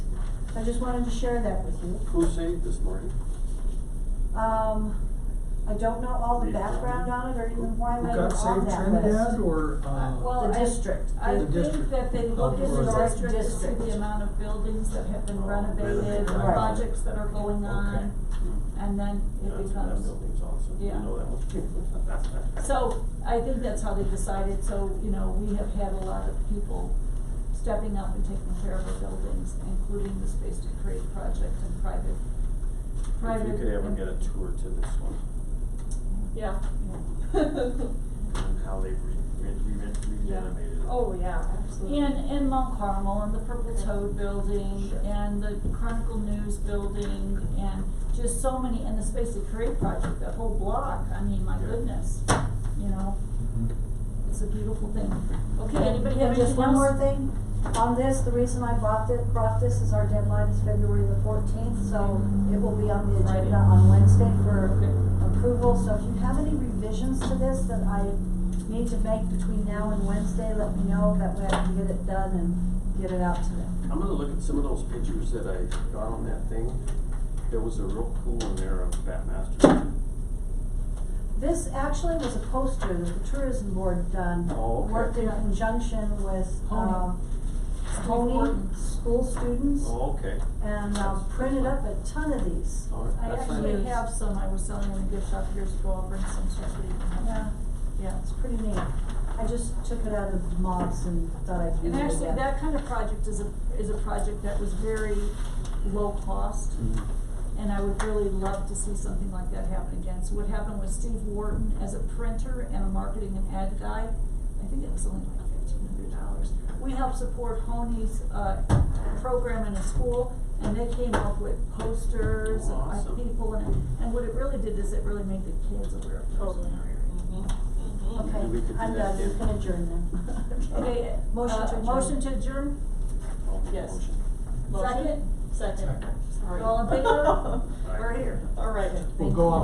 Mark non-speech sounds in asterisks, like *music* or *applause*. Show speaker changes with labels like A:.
A: I just wanted to share that with you.
B: Who saved this morning?
A: Um, I don't know all the background on it or even why
C: Who
A: I'm on
C: got saved
A: that list.
C: Trinidad or, uh,
D: Well,
A: Um, The
D: I-
A: district.
D: I
C: The
D: think
C: district.
D: that they look
C: Oh,
D: at
C: or
D: the
C: the
D: district to see
A: district.
D: the amount of buildings that have been renovated,
B: Renovated,
D: the
A: right.
D: projects that are going on, and then it
B: That's-
D: becomes.
B: That building's awesome, you
D: Yeah.
B: know that one.
D: *laughs* So I think that's how they decided, so, you know, we have had a lot of people stepping up and taking care of our buildings, including the Space to Create project and private,
B: If
D: private.
B: you could ever get a tour to this one,
E: Yeah. *laughs*
D: Yeah.
B: and how they re, re, re- renovated it.
E: Oh, yeah, absolutely.
D: And, and Mount Carmel, and the Purple Toad Building,
B: Sure.
D: and the Chronicle News Building, and just so many, and the Space to Create project, that whole block, I mean, my
B: Yeah.
D: goodness, you know,
C: Mhm.
D: it's a beautiful thing. Okay, anybody have anything else?
A: And just one more thing, on this, the reason I bought this, brought this is our deadline is February the fourteenth, so it will be on the
D: Friday.
A: agenda on Wednesday for
D: Okay.
A: approval, so if you have any revisions to this that I need to make between now and Wednesday, let me know, that way I can get it done and get it out to them.
B: I'm gonna look at some of those pictures that I got on that thing. There was a real cool one there of Batmaster.
A: This actually was a poster that the tourism board done,
B: Oh, okay.
A: worked in conjunction with,
D: Honey.
A: um,
D: Steve Horton.
A: Tony, school students,
B: Oh, okay.
A: and, um, printed up a ton of these.
B: All right,
D: I
B: that's fine.
D: actually have some, I was selling in a gift shop years ago, I'll bring some stuff for you.
A: Yeah,
D: Yeah.
A: it's pretty neat. I just took it out of mobs and thought I'd use it
D: And actually,
A: again.
D: that kind of project is a, is a project that was very low cost,
B: Mhm.
D: and I would really love to see something like that happen again. So what happened was Steve Wharton, as a printer and a marketing and ad guy, I think it was only like fifteen hundred dollars. We helped support Honey's, uh, program in a school, and they came up with posters and uh,
B: Awesome.
D: people, and, and what it really did is it really made the kids aware of tourism in our area.
E: Mm-hmm.
A: Okay,
B: We could do
A: I'm
B: that
A: done, you
B: again.
A: can adjourn then. *laughs*
D: *laughs* Okay,
A: Motion to
D: uh,
A: adjourn.
D: motion to adjourn,
B: I'll make a
E: Yes.
B: motion.
E: Motion?
D: second,
E: Second,
C: Second.
E: sorry.
D: All in favor? we're here.
E: All right.
C: We'll go off